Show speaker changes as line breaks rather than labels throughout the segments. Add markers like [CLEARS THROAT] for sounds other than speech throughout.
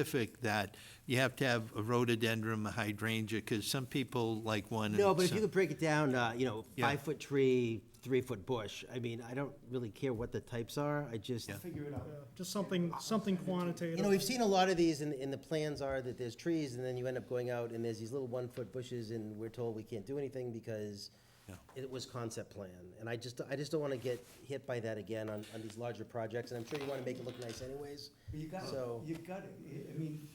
specific that you have to have a rhododendron, a hydrangea, because some people like one. and
No, but if
some-
you could break it down, uh, you know,
Yeah.
five-foot tree, three-foot bush, I mean, I don't really care what the types are, I just,
Figure it out. Just something, something quantitative.
you know, we've seen a lot of these, and, and the plans are that there's trees, and then you end up going out, and there's these little one-foot bushes, and we're told we can't do anything because it was concept plan, and I just, I just don't wanna get hit by that again on, on these larger projects, and I'm sure you wanna make it look nice anyways,
But You got it,
so.
you got it, I- I mean,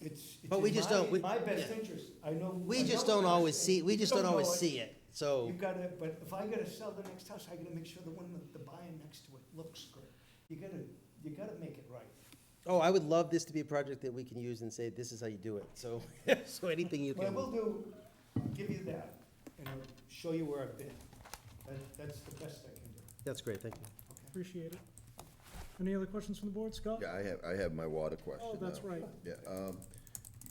it's. it's
But we
in
just
my-
don't- we-
My best
yeah.
interest, I know. I
We
know
just
what
don't
the best
always
is.
see, we
You
just don't
know
always see it, so.
You gotta, but if I gotta sell the next house, I gotta make sure the one that the buyer next to it looks good. You gotta, you gotta make it right.
Oh, I would love this to be a project that we can use and say, this is how you do it, so, [LAUGHS] so anything you
What I will
can.
do, I'll give you that, and I'll show you where I've been. That, that's the best I can do,
That's great, thank you.
okay?
Appreciate it. Any other questions from the board, Scott?
Yeah, I have, I have my water question
Oh, that's
now.
right.
Yeah, um,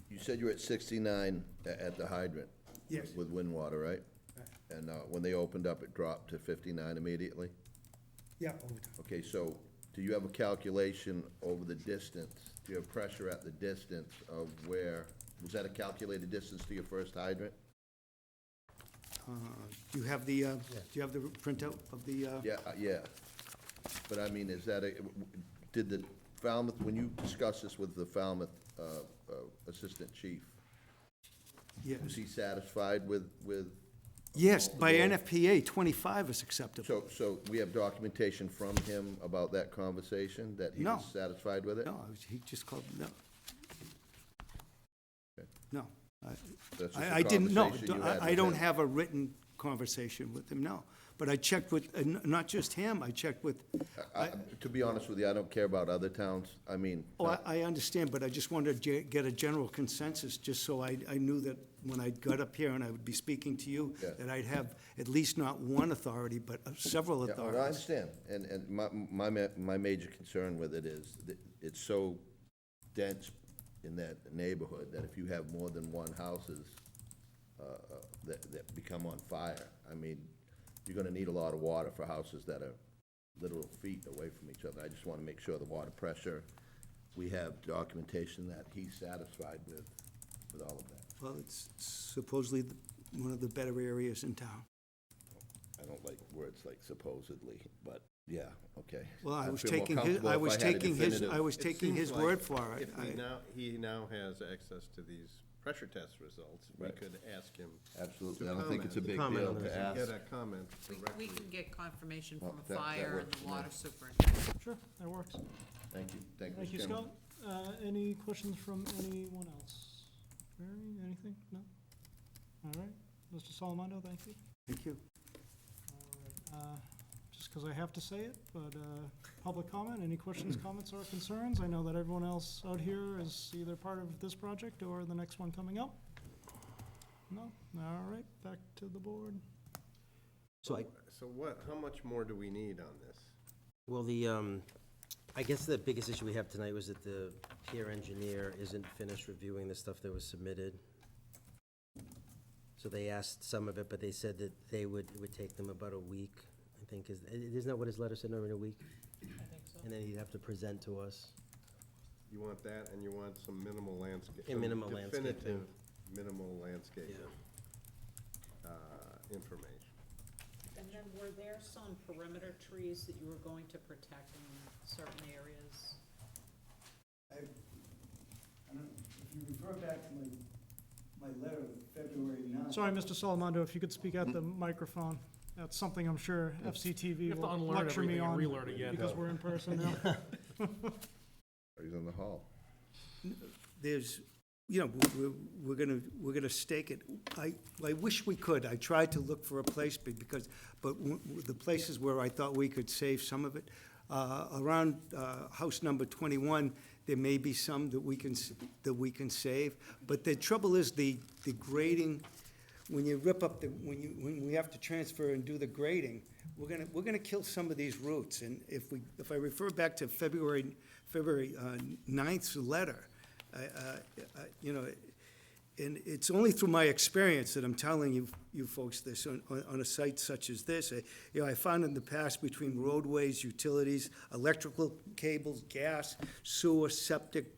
you said you were at sixty-nine a- at the hydrant.
Yes.
With wind water, right? And, uh, when they opened up, it dropped to fifty-nine immediately?
Yeah, over time.
Okay, so do you have a calculation over the distance? Do you have pressure at the distance of where, was that a calculated distance to your first hydrant?
Do you have the, uh, do you have the printout of the, uh,
Yeah, uh, yeah. But I mean, is that a, did the Falmouth, when you discussed this with the Falmouth, uh, uh, Assistant Chief,
yeah.
was he satisfied with, with
yes, by NFPA, 25 is acceptable.
So, so we have documentation from him about that conversation, that he
No.
was satisfied with it?
No, I was- he just called, no.
Okay.
No. I-
That's just a
I I didn't, no,
conversation you
I-
had
I
with
don't
him.
have a written conversation with him, no. But I checked with, and n- not just him, I checked with,
I- I- To be honest with you, I don't care about other towns, I mean,
oh, I- I understand, but I just wanted to ge- get a general consensus, just so I I knew that when I got up here and I would be speaking to you,
Yeah.
that I'd have at least not one authority, but uh, several
yeah, I
authorities.
understand, and, and my, my, ma- my major concern with it is that it's so dense in that neighborhood that if you have more than one houses, uh, uh, that, that become on fire, I mean, you're gonna need a lot of water for houses that are literal feet away from each other. I just wanna make sure the water pressure, we have documentation that he's satisfied with, with all of that.
Well, it's supposedly the- one of the better areas in town.
I don't like words like supposedly, but, yeah, okay.
Well, I
I'd
was
feel more
taking his,
comfortable
I
if
was
had a
taking his, I
definitive-
was
It
taking
seems
his
like
word for it.
If
I-
we now, he now has access to these pressure test results, we
Right.
could ask him.
Absolutely,
to
I don't think it's a
comment.
big
Comment
deal
on
to
To
ask.
Get a comment
We,
directly.
we can get confirmation
Well,
from
that- that
fire and
works,
the
yeah.
water superintendent.
Sure, that works.
Thank you, thank you.
Thank you,
Mr.
Scott.
Chairman.
Uh, any questions from anyone else? Mary, anything? No? All right. Mr. Salamando, thank you.
Thank you.
All right, uh, Just because I have to say it, but uh, public comment, any
[CLEARS THROAT]
questions, comments, or concerns? I know that everyone else out here is either part of this project or the next one coming up. No? All right, back to the board.
So I,
So what, how much more do we need on this?
well, the, um, I guess the biggest issue we have tonight was that the peer engineer isn't finished reviewing the stuff that was submitted. So they asked some of it, but they said that they would, it would take them about a week, I think, is, isn't that what his letter said, over in a week? And then he'd have to present to us.
You want that, and you want some minimal landscape.
And minimal landscaping.
Definitive, minimal landscaping. uh, Information.
And then were there some perimeter trees that you were going to protect in certain areas?
I, I don't know, if you refer back to my, my letter of February ninth.
Sorry, Mr. Salamando, if you could speak at the microphone. That's something I'm sure FCTV will lecture me on. Because we're in person now.
He's in the hall.
There's, you know, we're, we're gonna, we're gonna stake it. I, I wish we could. I tried to look for a place be- because, but w- w- the places where I thought we could save some of it, uh, around, uh, house number twenty-one, there may be some that we can, s- that we can save. But the trouble is the, the grading, when you rip up the, when you, when we have to transfer and do the grading, we're gonna, we're gonna kill some of these roots. And if we, if I refer back to February, February uh, 9th's letter, I, I- I- you know, And it's only through my experience that I'm telling you, you folks this, on, on- on a site such as this. I- You know, I found in the past between roadways, utilities, electrical cables, gas, sewer, septic,